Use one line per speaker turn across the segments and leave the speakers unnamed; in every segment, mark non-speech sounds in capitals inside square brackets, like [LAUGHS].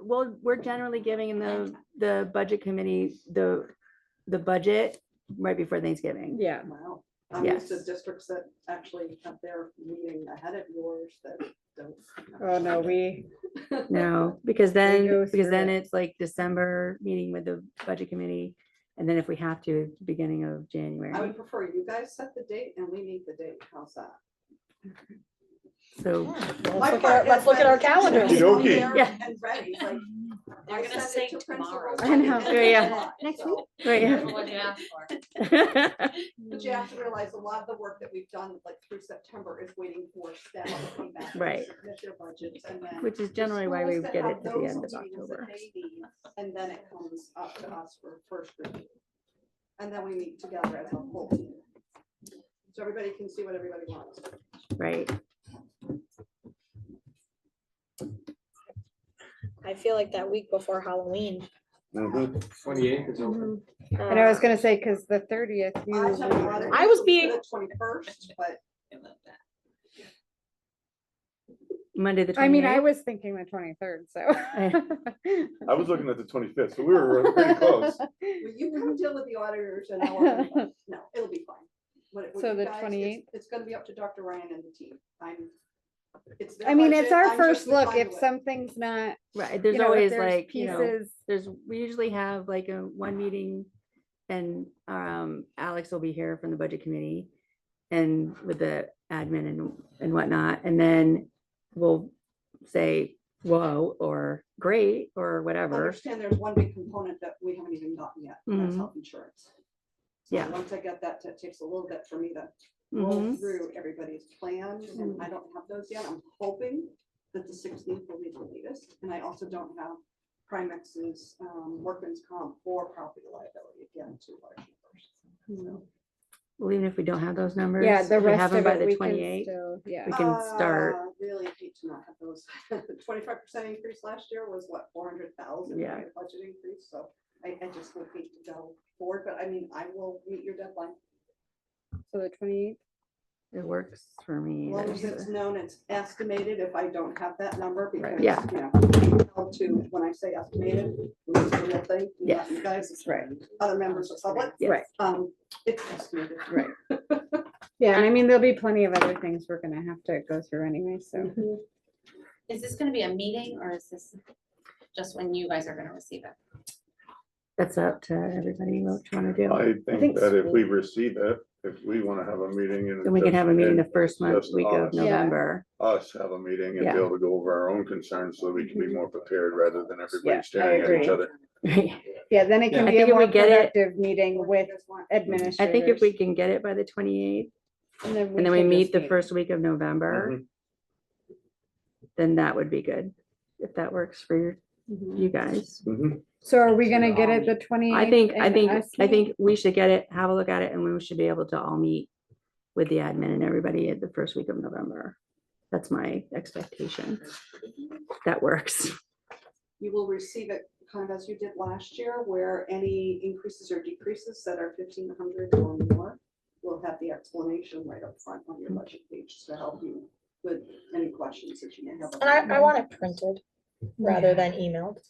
well, we're generally giving the, the budget committee, the, the budget right before Thanksgiving.
Yeah,
Wow. I'm used to
Yes.
districts that actually have their meeting ahead of yours that don't.
oh no, we,
No, because then,
go
because then
through it.
it's like December meeting with the budget committee. And then if we have to, beginning of
I
January.
would prefer you guys set the date and we meet the date. How's that?
So,
My
let's look
part
at, let's
is
look at our
that-
calendars.
Okey dokey.
Yeah.
And ready, like.
They're
I
gonna
send it
say
to
tomorrow.
principals by the
I know,
end of
yeah.
July,
Next
so-
week?
[LAUGHS]
right.
What you asked for.
But you have to realize a lot of the work that we've done like through September is waiting for staff to come back. and
Right.
submit their budgets and
[LAUGHS]
then
which is
the
generally why we
schools that
get
have
it at the
those
end of
meetings that
October.
they need, And then it comes up to us for first review. And then we meet together as a whole. team. So everybody can see what everybody wants.
Right.
I feel like that week before Halloween.
Twenty-eighth is open.
And I was gonna say, cause the thirtieth.
I took a lot of
I
people
was
to
being-
the Twenty-first, but
I love that.
Monday, the
I mean, I
28th.
was thinking the twenty-third, so.
I was looking at the twenty-fifth, so we were we're
[LAUGHS]
[LAUGHS]
pretty close.
will you come deal with the auditors and all of that? No, it'll be fine. What it- what
So
you
the
guys- it's-
28th?
It's gonna be up to Dr. Ryan and the team. I'm. it's their
I mean, it's
budget, I'm
our
just
first
the
look. If
conduit.
something's not,
[LAUGHS] Right,
you
there's
know, if
always
there's
like, you know,
pieces.
there's, we usually have like a one meeting and um Alex will be here from the budget committee and with the admin and and whatnot, and then we'll say, whoa, or great, or
Oh,
whatever.
Understand there's one big component that we haven't even gotten yet, and that's
Mhm.
health insurance. So
Yeah.
Once I get that, that takes a little bit for me to roll
Mhm.
through everybody's plan, and I don't have those yet. I'm hoping that the sixteenth will be the latest, and I also don't have Primex's um, workman's comp or property liability again to large numbers. So,
Well, even if we don't have those numbers.
yeah, the
if we have
rest
them
of
by
it,
the
we
28th,
can still, yeah.
we can start.
Ah, Really hate to not have those. [LAUGHS] Twenty-five percent increase last year was what, four hundred thousand?
Yeah.
Budget increase, so I, I just would hate to go forward, but I mean, I will meet your deadline.
So the twenty-eighth.
It works for
As
me.
long as
there's
it's
a-
known, it's estimated if I don't have that number because, you
yeah.
know, held to, when I say estimated, it's the real thing. not You guys, it's
Right.
other members of public,
yes.
Right.
um, it's estimated.
Right. Yeah, and I mean, there'll be plenty of other things we're gonna have to go through anyway, so.
Is this gonna be a meeting or is this just when you guys are gonna receive it?
That's up to everybody what you want to do.
I
think
think that if
so.
we receive it, if we want to have a meeting and.
Then we can have a meeting the first month,
just
week of
us.
Yeah.
November. [LAUGHS]
Us have a meeting and
Yeah. Mhm.
be able to go over our own concerns so we can be more prepared rather than
Yeah, I
everybody staring at
agree.
each other.
Yeah, then it
Yeah.
can
I
be
think
a
if we
more
get it-
productive meeting with administrators.
I think if we can get it by the 28th,
And
And then we
can
meet
just
the first week of November,
Mhm.
then that would be good, if that works for your-
Mm-hmm.
Mhm.
you guys.
Mhm.
So are we gonna get it the twenty?
I think, I think, I think we should get it, have a look at it, and we should be able to all meet with the admin and everybody at the first week of November. That's my expectation. That
[LAUGHS]
works.
You will receive it kind of as you did last year, where any increases or decreases that are fifteen hundred or more will have the explanation right up front on your budget page to help you with any questions that you may have.
And I, I want it printed rather than emailed.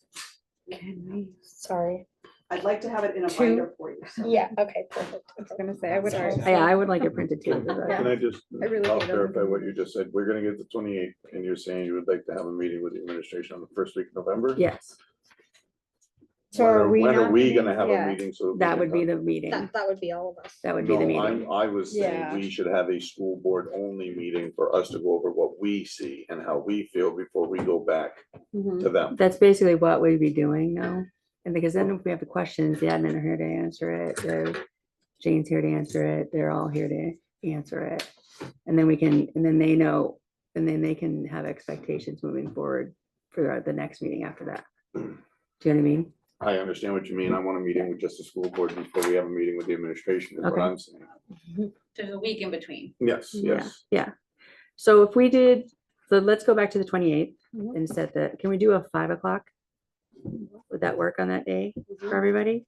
Sorry.
I'd like to have it in a
Two-
binder for you. so-
Yeah, okay, perfect.
I was gonna say, I would.
Sorry.
argue.
Yeah, I would like it printed too. but
Can I just,
I really
I'll
hate it.
clarify what you just said. We're gonna get the twenty-eighth and you're saying you would like to have a meeting with the administration on the first week of November?
Yes,
So
When
are we?
When are
not
we
meeting-
gonna have a
yeah.
meeting? So. we
that
can
would be
talk?
the meeting.
That, that would be all of us.
That would be the
No, I'm-
meeting.
I was saying
Yeah.
we should have a school board only meeting for us to go over what we see and how we feel before we go back
Mhm.
Mm-hmm.
to them.
That's basically what we'd be doing now. And because then if we have the questions, the admin are here to answer it, the Jane's here to answer it, they're all here to answer it. And then we can, and then they know, and then they can have expectations moving forward for our- the next meeting after that. Do you know what I mean?
I understand what you mean. I want a meeting with just the school board before we have a meeting with the administration, is what
Okay.
I'm saying.
There's a week in between.
Yes,
Yeah.
yes.
So if we did, so let's go back to the twenty-eighth
Mhm.
and set the, can we do a five o'clock? Would that work on that day for everybody?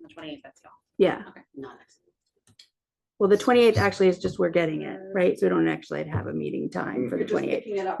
The twenty eighth, that's all.
Yeah.
Okay. Not next.
Well, the twenty-eighth actually is just, we're getting it, right? So we don't actually have a meeting time for
You're
the
just
twenty-eighth.
picking it up